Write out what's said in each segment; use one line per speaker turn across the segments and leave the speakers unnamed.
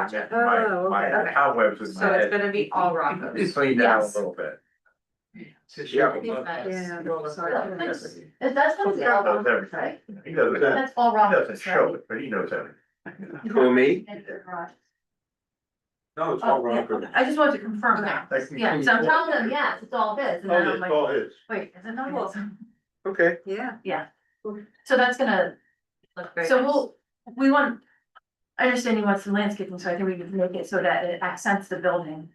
project.
My,
Oh,
my
okay.
cobwebs in my
So it's
head,
gonna be all Rockos.
it's cleaned out a
Yes.
little bit.
I
Yeah.
think that is-
Yeah, sorry.
That- That's gonna be all
Knows
Rockos,
everything.
right?
He does it, he
That's all
doesn't
Rockos,
show
right?
it, but he knows everything.
Who, me?
And the garage.
No, it's all
Oh, yeah,
Rockers.
okay. I just wanted to confirm that.
That can
Yeah,
be-
so I'm telling them, yes, it's all his, and
All
then I'm
his,
like,
Oh, all his.
wait, is it not his?
Okay,
Yeah.
So that's gonna,
Look very
so
nice.
we'll, we want, I understand you want some landscaping, so I think we can make it so that it accents the building.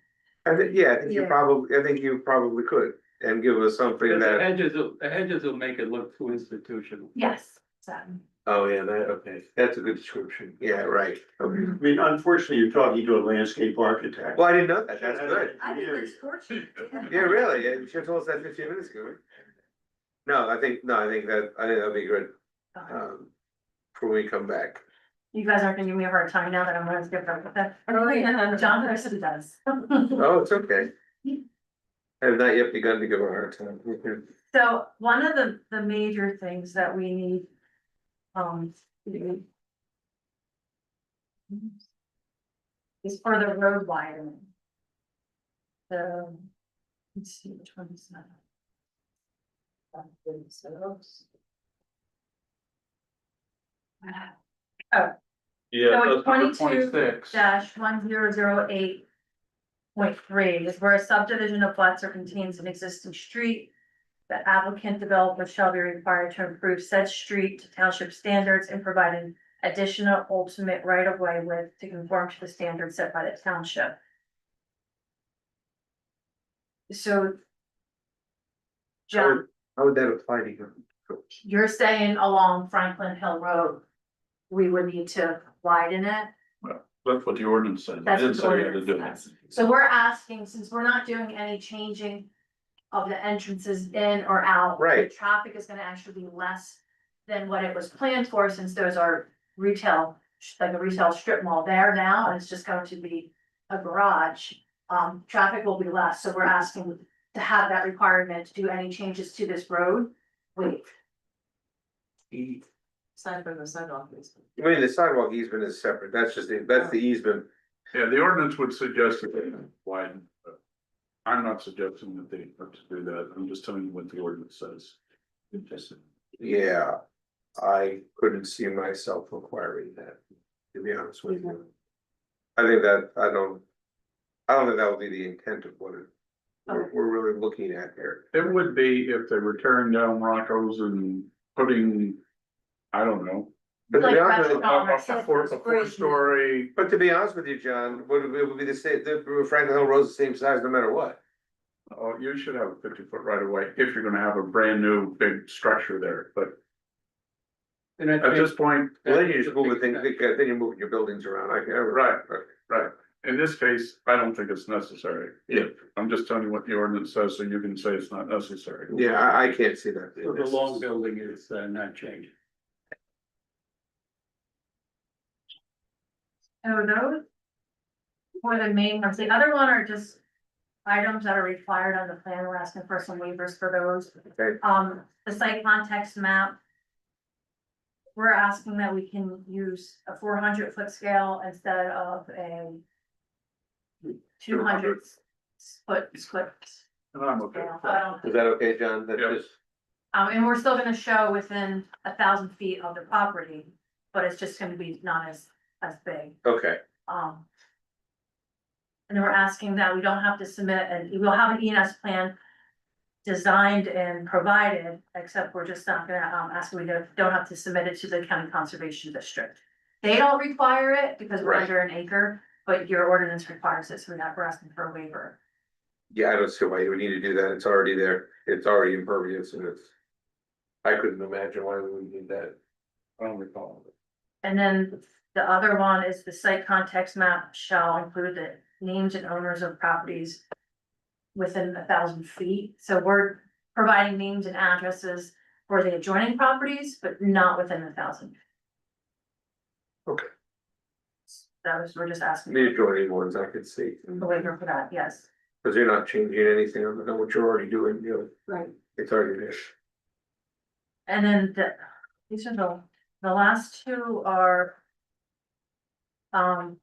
I think, yeah, I think you
Yeah.
probably, I think you probably could, and give us something
The
that,
hedges, will- the hedges will make it look too institutional.
Yes, um, exactly.
oh, yeah, that, okay, that's a good description, yeah, right, okay.
I mean, unfortunately, you're talking to a landscape architect.
Well, I didn't know that, that's good,
I think it's fortunate.
yeah, really, yeah, you should have told us that fifteen minutes ago. right? No, I think, no, I think that, I think that'd be good,
Uh.
Okay.
um, for when we come back.
You guys aren't gonna give me a hard time now that I'm gonna skip over that.
Oh, yeah.
John Preston does.
Oh, it's okay. I have not yet begun to give her a hard time. Okay.
So one of the, the major things that we need, um. Is for the road widening. The, let's see, which one is that? So
Yeah,
it's
that's number
22
twenty-six.
dash one zero zero eight point three is where a subdivision of lots or contains an existing street. The applicant developer shall be required to improve said street to township standards and provide an additional ultimate right of way width to conform to the standards set by the township. So. John,
How would that apply to you?
you're saying along Franklin Hill Road, we would need to widen it?
That's what the ordinance says. It
That's what
didn't
the
say we had to
ordinance
do it.
says. So we're asking, since we're not doing any changing of the entrances in or out. the
Right.
Traffic is gonna actually be less than what it was planned for, since those are retail, like a retail strip mall there now, and it's just going to be a garage. Um, traffic will be less, so we're asking to have that requirement to do any changes to this road waived.
Aside from the sidewalk. is-
I mean, the sidewalk easement is separate, that's just, the that's the easement,
Yeah, the ordinance would suggest that they widen. but uh, I'm not suggesting that they have to do that. I'm just telling you what the ordinance says. Just-
yeah. I couldn't see myself requiring that, to be honest with you. I think that, I don't, I don't think that would be the intent of what it- we're, we're really looking at here.
It would be if they were tearing down Rocco's and putting, I don't know.
But to be
Like
honest,
restaurant.
with-
Dollars.
A four, a four story,
but to be honest with you, John, would, it would be the same, the Franklin Hill Road's the same size no matter what.
oh, you should have a fifty foot right of way if you're gonna have a brand new big structure there, but
And I
at
think
this point,
Well, Then you just move the thing, then you're moving your buildings around, I, I.
right, right. In this case, I don't think it's necessary. Yeah. I'm just telling you what the ordinance says, so you can say it's not necessary.
Yeah, I, I can't see that.
So the long building is uh, not changed.
Oh, those? Were the main ones, the other one are just items that are required on the plan, we're asking for some waivers for those.
Okay.
Um, the site context map. We're asking that we can use a four hundred foot scale instead of a. Two hundred foot, foot
And I'm okay.
scale,
with
I
that.
don't-
Is that okay, John? That's
Yeah.
just.
um, and we're still gonna show within a thousand feet of the property, but it's just gonna be not as, as big.
Okay,
Um. And we're asking that we don't have to submit, and we'll have an ENS plan. Designed and provided, except we're just not gonna, um, ask, we don't, don't have to submit it to the county conservation district. They don't require it because we're
Right.
under an acre, but your ordinance requires it, so we're not, we're asking for a waiver.
yeah, I don't see why you would need to do that, it's already there, it's already impervious and it's. I couldn't imagine why we would need that.
I don't recall.
And then the other one is the site context map shall include the names and owners of properties. Within a thousand feet, so we're providing names and addresses for the adjoining properties, but not within a thousand.
Okay.
That was, we're just asking
The adjoining ones I could see,
the waiver for that, yes.
because you're not changing anything, on what you're already doing, you know,
Right.
it's already there.
And then the, these are the, the last two are. Um.